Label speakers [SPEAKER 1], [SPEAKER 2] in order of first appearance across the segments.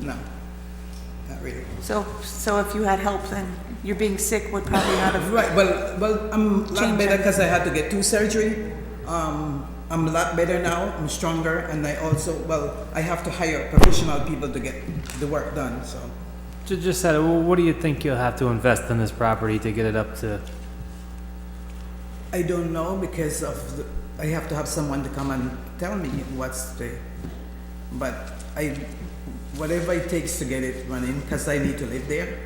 [SPEAKER 1] No, not really.
[SPEAKER 2] So, so if you had help, then your being sick would probably not have,
[SPEAKER 1] Right, well, well, I'm a lot
[SPEAKER 2] Change
[SPEAKER 1] better
[SPEAKER 2] it.
[SPEAKER 1] because I had to get two surgery. Um, I'm a lot better now, I'm stronger, and I also, well, I have to hire professional people to get the work done, so.
[SPEAKER 3] Ju- Just said, well, what do you think you'll have to invest in this property to get it up to?
[SPEAKER 1] I don't know because of, the- I have to have someone to come and tell me what's the, but I, whatever it takes to get it running, because I need to live there.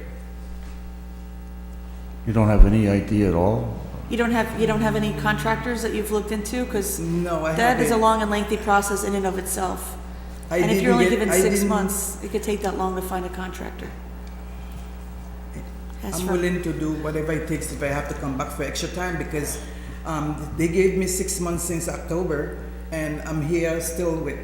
[SPEAKER 4] You don't have any idea at all?
[SPEAKER 2] you don't have, you don't have any contractors that you've looked into? Because
[SPEAKER 1] No, I
[SPEAKER 2] that is a
[SPEAKER 1] haven't.
[SPEAKER 2] long and lengthy process in and of itself.
[SPEAKER 1] I
[SPEAKER 2] And if
[SPEAKER 1] didn't
[SPEAKER 2] you're only
[SPEAKER 1] get-
[SPEAKER 2] given
[SPEAKER 1] I
[SPEAKER 2] six
[SPEAKER 1] didn't-
[SPEAKER 2] months, it could take that long to find a contractor. As
[SPEAKER 1] I'm
[SPEAKER 2] for-
[SPEAKER 1] willing to do whatever it takes if I have to come back for extra time because um, they gave me six months since October and I'm here still with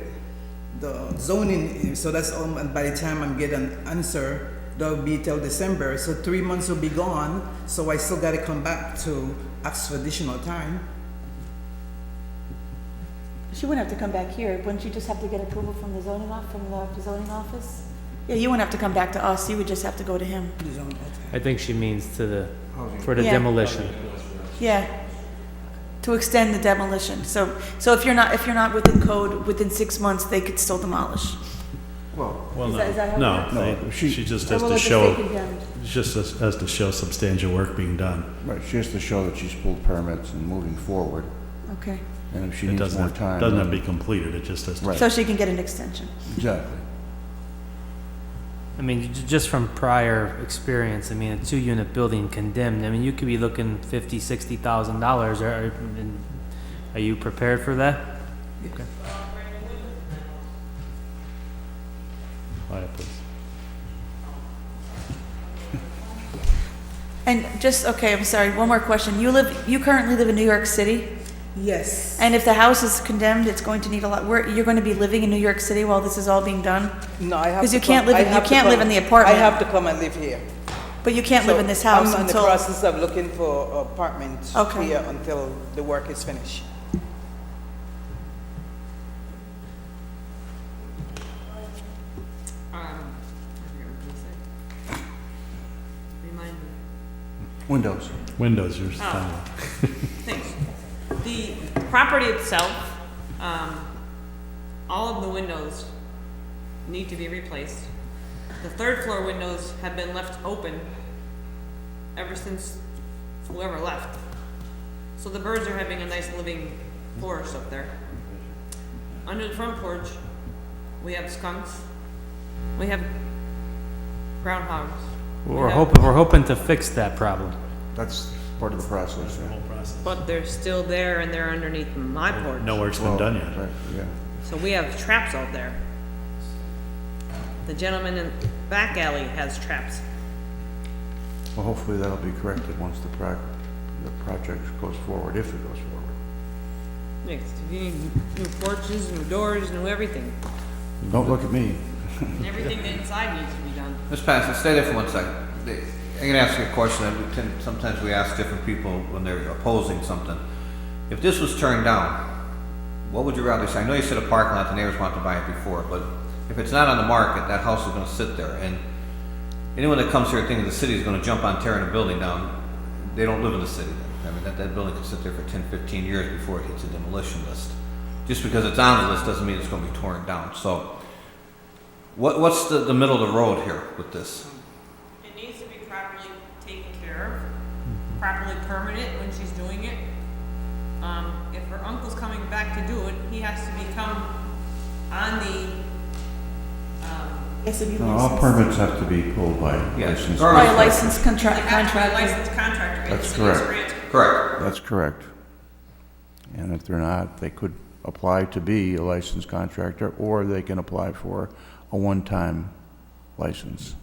[SPEAKER 1] the zoning. So that's all, and by the time I'm getting an answer, that'll be till December. So three months will be gone. So I still got to come back to ask for additional time.
[SPEAKER 2] She wouldn't have to come back here, wouldn't you just have to get approval from the zoning off, from the zoning office? Yeah, you wouldn't have to come back to us, you would just have to go to him.
[SPEAKER 3] I think she means to the, for the
[SPEAKER 2] Yeah.
[SPEAKER 3] demolition.
[SPEAKER 2] Yeah, to extend the demolition, so, so if you're not, if you're not within code, within six months, they could still demolish.
[SPEAKER 5] Well,
[SPEAKER 2] Is that- is that how it
[SPEAKER 5] no,
[SPEAKER 2] works?
[SPEAKER 5] no,
[SPEAKER 4] No,
[SPEAKER 5] they-
[SPEAKER 4] she-
[SPEAKER 5] she just
[SPEAKER 2] Or
[SPEAKER 5] has
[SPEAKER 2] will
[SPEAKER 5] to
[SPEAKER 2] it just
[SPEAKER 5] show,
[SPEAKER 2] take again?
[SPEAKER 5] just has has to show substantial work being done.
[SPEAKER 4] Right, she has to show that she's pulled permits and moving forward,
[SPEAKER 2] Okay,
[SPEAKER 4] and if she
[SPEAKER 5] It
[SPEAKER 4] needs
[SPEAKER 5] doesn't,
[SPEAKER 4] more
[SPEAKER 5] have-
[SPEAKER 4] time...
[SPEAKER 5] doesn't have to
[SPEAKER 4] then-
[SPEAKER 5] be completed, it just has to.
[SPEAKER 4] Right.
[SPEAKER 2] so she can get an extension.
[SPEAKER 4] Exactly.
[SPEAKER 3] I mean, j- just from prior experience, I mean, a two-unit building condemned, I mean, you could be looking fifty, sixty thousand dollars, or, or- and are you prepared for that?
[SPEAKER 5] Quiet, please.
[SPEAKER 2] And just, okay, I'm sorry, one more question, you live, you currently live in New York City?
[SPEAKER 1] Yes.
[SPEAKER 2] And if the house is condemned, it's going to need a lot, where, you're gonna be living in New York City while this is all being done?
[SPEAKER 1] No, I have
[SPEAKER 2] 'Cause
[SPEAKER 1] to
[SPEAKER 2] you can't
[SPEAKER 1] come-
[SPEAKER 2] live
[SPEAKER 1] I
[SPEAKER 2] in- you
[SPEAKER 1] have to
[SPEAKER 2] can't live
[SPEAKER 1] come-
[SPEAKER 2] in the apartment.
[SPEAKER 1] I have to come and live here.
[SPEAKER 2] But you can't live
[SPEAKER 1] So
[SPEAKER 2] in this house
[SPEAKER 1] I'm in the
[SPEAKER 2] until,
[SPEAKER 1] process of looking for apartments
[SPEAKER 2] Okay.
[SPEAKER 1] here until the work is finished.
[SPEAKER 6] Um, I forget what you said. Remind me.
[SPEAKER 4] Windows.
[SPEAKER 5] Windows, yours.
[SPEAKER 6] Oh.
[SPEAKER 5] done.
[SPEAKER 6] Thanks. The property itself, um, all of the windows need to be replaced. The third floor windows have been left open ever since whoever left. So the birds are having a nice living forest up there. Under the front porch, we have skunks, we have groundhogs. we
[SPEAKER 3] We're
[SPEAKER 6] have-
[SPEAKER 3] hoping, we're hoping to fix that problem.
[SPEAKER 4] That's part of the process, yeah.
[SPEAKER 6] But they're still there and they're underneath my porch.
[SPEAKER 5] No work's been
[SPEAKER 4] Well,
[SPEAKER 5] done yet.
[SPEAKER 4] right, Yeah.
[SPEAKER 6] So we have traps out there. The gentleman in back alley has traps.
[SPEAKER 4] Well, hopefully that'll be corrected once the pro, the project goes forward, if it goes forward.
[SPEAKER 6] Next, you need new porches, new doors, new everything.
[SPEAKER 4] Don't look at me.
[SPEAKER 6] And everything that inside needs to be done.
[SPEAKER 7] Ms. Patterson, stay there for one second. The- I'm gonna ask you a question that we tend, sometimes we ask different people when they're opposing something. If this was turned down, what would you rather see? I know you said a parking lot, the neighbors wanted to buy it before, but if it's not on the market, that house is gonna sit there, and anyone that comes here thinking the city is gonna jump on tearing a building down, they don't live in the city. I mean, that, that building could sit there for 10, 15 years before it hits a demolition list. Just because it's on the list doesn't mean it's gonna be torn down, so what, what's the, the middle of the road here with this?
[SPEAKER 6] It needs to be properly taken care of, properly permanent when she's doing it. Um, if her uncle's coming back to do it, he has to become on the, um,
[SPEAKER 2] yes, if you
[SPEAKER 4] No, All
[SPEAKER 2] license.
[SPEAKER 4] permits have to be pulled by
[SPEAKER 7] Yeah.
[SPEAKER 4] licensed.
[SPEAKER 7] All
[SPEAKER 2] By
[SPEAKER 7] right.
[SPEAKER 2] a licensed
[SPEAKER 6] they
[SPEAKER 2] contract,
[SPEAKER 6] have to be a
[SPEAKER 2] contractor.
[SPEAKER 6] licensed contractor.
[SPEAKER 4] That's
[SPEAKER 6] It's- it's
[SPEAKER 4] correct.
[SPEAKER 6] grant-
[SPEAKER 7] Correct.
[SPEAKER 4] That's correct. And if they're not, they could apply to be a licensed contractor, or they can apply for a one-time license.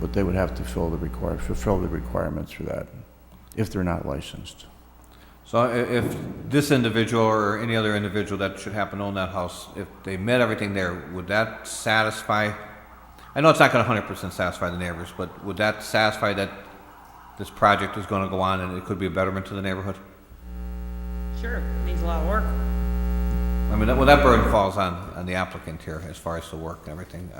[SPEAKER 4] But they would have to fill the require, fulfill the requirements for that, if they're not licensed.
[SPEAKER 7] So i- if this individual or any other individual that should happen to own that house, if they met everything there, would that satisfy? I know it's not gonna hundred percent satisfy the neighbors, but would that satisfy that this project is gonna go on and it could be a betterment to the neighborhood?
[SPEAKER 6] Sure, it needs a lot of work.
[SPEAKER 7] I mean, that, well, that burden falls on, on the applicant here as far as the work and everything.